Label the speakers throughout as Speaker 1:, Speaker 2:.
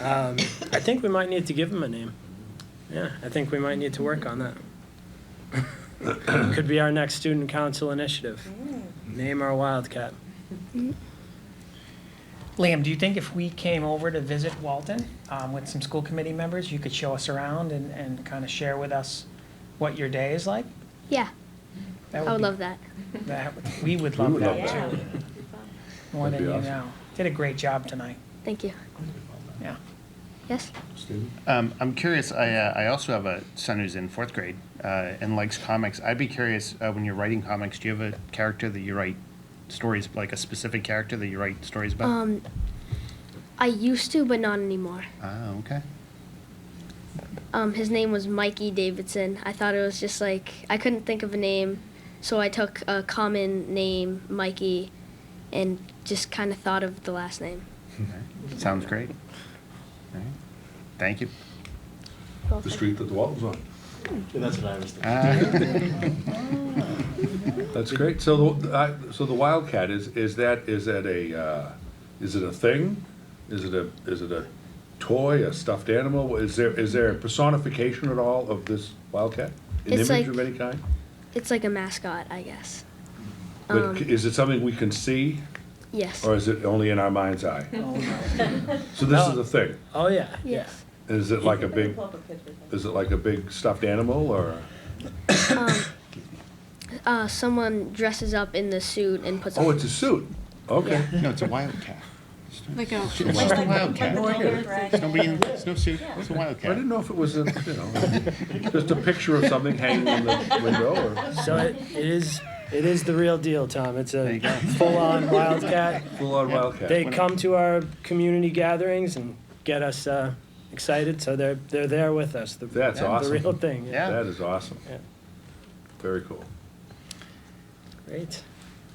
Speaker 1: Um, I think we might need to give him a name. Yeah, I think we might need to work on that. Could be our next student council initiative. Name our Wildcat.
Speaker 2: Liam, do you think if we came over to visit Walton um, with some school committee members, you could show us around and, and kind of share with us what your day is like?
Speaker 3: Yeah,
Speaker 2: That
Speaker 3: I would
Speaker 2: be-
Speaker 3: love that.
Speaker 2: that. would- We would love
Speaker 4: would
Speaker 2: that
Speaker 4: love
Speaker 5: Yeah.
Speaker 2: too, more than
Speaker 4: That'd
Speaker 2: you
Speaker 4: be awesome.
Speaker 2: know. Did a great job tonight,
Speaker 3: Thank you.
Speaker 2: yeah.
Speaker 3: Yes?
Speaker 4: Stephen?
Speaker 6: Um, I'm curious. I, uh, I also have a son who's in fourth grade uh, and likes comics. I'd be curious uh, when you're writing comics, do you have a character that you write stories like a specific character that you write stories about?
Speaker 3: Um, I used to, but not anymore.
Speaker 6: ah, okay.
Speaker 3: Um, his name was Mikey Davidson. I thought it was just like, I couldn't think of a name, so I took a common name, Mikey, and just kind of thought of the last name.
Speaker 6: Sounds great. All right. Thank you.
Speaker 4: The street that the Walton's on.
Speaker 7: Yeah, that's what I was thinking.
Speaker 6: Uh,
Speaker 4: Ah. That's great. So, the- I- so the Wildcat, is, is that, is that a, uh, is it a thing? Is it a, is it a toy, a stuffed animal? Is there, is there a personification at all of this Wildcat? An
Speaker 3: It's
Speaker 4: image
Speaker 3: like-
Speaker 4: of any kind?
Speaker 3: It's like a mascot, I guess.
Speaker 4: But c- is it something we can see,
Speaker 3: Yes.
Speaker 4: or is it only in our mind's eye? So this is a thing.
Speaker 1: Oh, yeah.
Speaker 3: Yes.
Speaker 4: Is it like a big,
Speaker 5: Pull up a picture of
Speaker 4: is it like a big stuffed animal, or?
Speaker 3: Uh, someone dresses up in the suit and puts
Speaker 4: Oh,
Speaker 3: on.
Speaker 4: it's a suit. Okay.
Speaker 6: no, it's a wildcat.
Speaker 8: Like a,
Speaker 6: It's just a wildcat.
Speaker 5: Like an older
Speaker 6: It's
Speaker 5: dragon.
Speaker 6: nobody in it's no suit. It's a
Speaker 4: I
Speaker 6: wildcat.
Speaker 4: didn't know if it was a, you know, just a picture of something hanging in the window or
Speaker 1: So it, it is, it is the real deal, Tom. It's
Speaker 6: There
Speaker 1: a
Speaker 6: you go.
Speaker 1: full-on Wildcat.
Speaker 4: full-on
Speaker 1: They
Speaker 4: wildcat.
Speaker 1: come to our community gatherings and get us uh, excited, so they're, they're there with us. the-
Speaker 4: That's awesome.
Speaker 1: The real thing.
Speaker 6: Yeah.
Speaker 4: That is awesome.
Speaker 1: Yeah.
Speaker 4: Very cool.
Speaker 1: Great.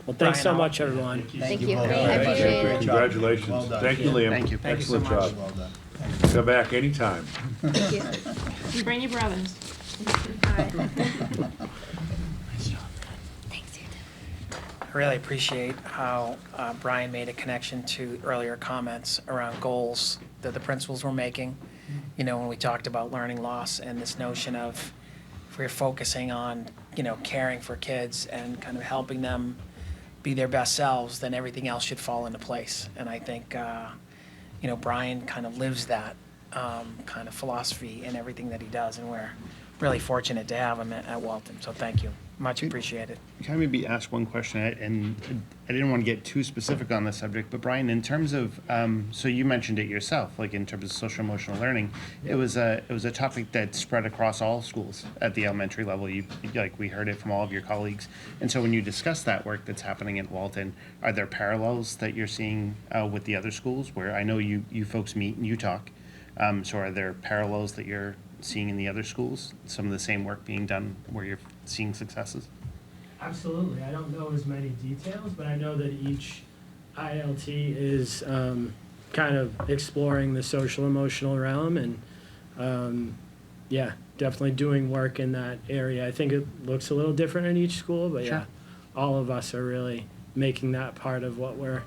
Speaker 1: Well, thanks so
Speaker 2: Brian, I'll-
Speaker 1: much, everyone.
Speaker 3: Thank you. I
Speaker 4: Thank you.
Speaker 3: appreciate it.
Speaker 4: Congratulations. Thank you, Liam.
Speaker 6: Thank you. Thank
Speaker 2: you so
Speaker 4: Excellent
Speaker 2: much.
Speaker 4: job.
Speaker 7: Well done.
Speaker 4: Come back anytime.
Speaker 3: Thank you.
Speaker 8: Brandy Robbins.
Speaker 3: Thanks, dude.
Speaker 2: I really appreciate how uh, Brian made a connection to earlier comments around goals that the principals were making. You know, when we talked about learning loss and this notion of if we're focusing on, you know, caring for kids and kind of helping them be their best selves, then everything else should fall into place. And I think, uh, you know, Brian kind of lives that um, kind of philosophy in everything that he does, and we're really fortunate to have him at, at Walton. So thank you, much appreciated.
Speaker 6: Can I maybe ask one question? I- And I didn't want to get too specific on this subject, but Brian, in terms of, um, so you mentioned it yourself, like in terms of social emotional learning, it was a, it was a topic that spread across all schools at the elementary level. You, like, we heard it from all of your colleagues. And so when you discuss that work that's happening at Walton, are there parallels that you're seeing uh, with the other schools where I know you, you folks meet and you talk? Um, so are there parallels that you're seeing in the other schools? Some of the same work being done where you're seeing successes?
Speaker 1: Absolutely. I don't know as many details, but I know that each ILT is um, kind of exploring the social emotional realm and, um, yeah, definitely doing work in that area. I think it looks a little different in each school, but yeah,
Speaker 6: Sure.
Speaker 1: all of us are really making that part of what we're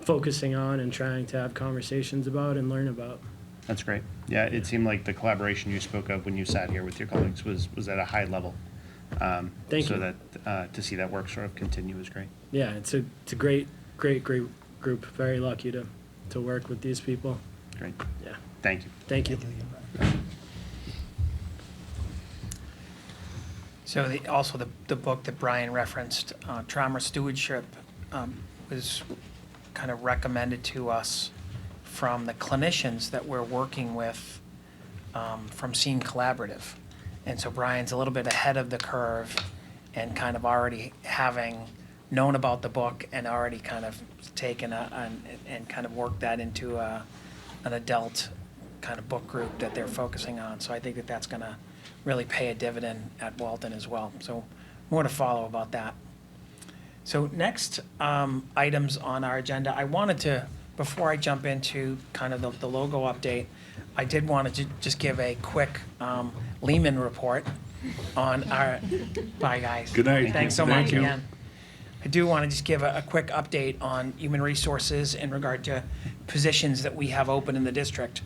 Speaker 1: focusing on and trying to have conversations about and learn about.
Speaker 6: That's great. Yeah, it seemed like the collaboration you spoke of when you sat here with your colleagues was, was at a high level. Um,
Speaker 1: Thank
Speaker 6: so
Speaker 1: you.
Speaker 6: that uh, to see that work sort of continue is great.
Speaker 1: Yeah, it's a, it's a great, great, great group. Very lucky to, to work with these people.
Speaker 6: Great.
Speaker 1: Yeah.
Speaker 6: Thank you.
Speaker 1: Thank you.
Speaker 2: So the, also the, the book that Brian referenced, uh, Trauma Stewardship, um, was kind of recommended to us from the clinicians that we're working with um, from Scene Collaborative. And so Brian's a little bit ahead of the curve and kind of already having known about the book and already kind of taken a, an, and kind of worked that into a, an adult kind of book group that they're focusing on. So I think that that's going to really pay a dividend at Walton as well. So more to follow about that. So next um, items on our agenda, I wanted to, before I jump into kind of the- the logo update, I did want to just give a quick um, Lehman report on our, bye, guys.
Speaker 4: Good night.
Speaker 2: Thanks so much
Speaker 4: Thank you.
Speaker 2: again. I do want to just give a a quick update on human resources in regard to positions that we have open in the district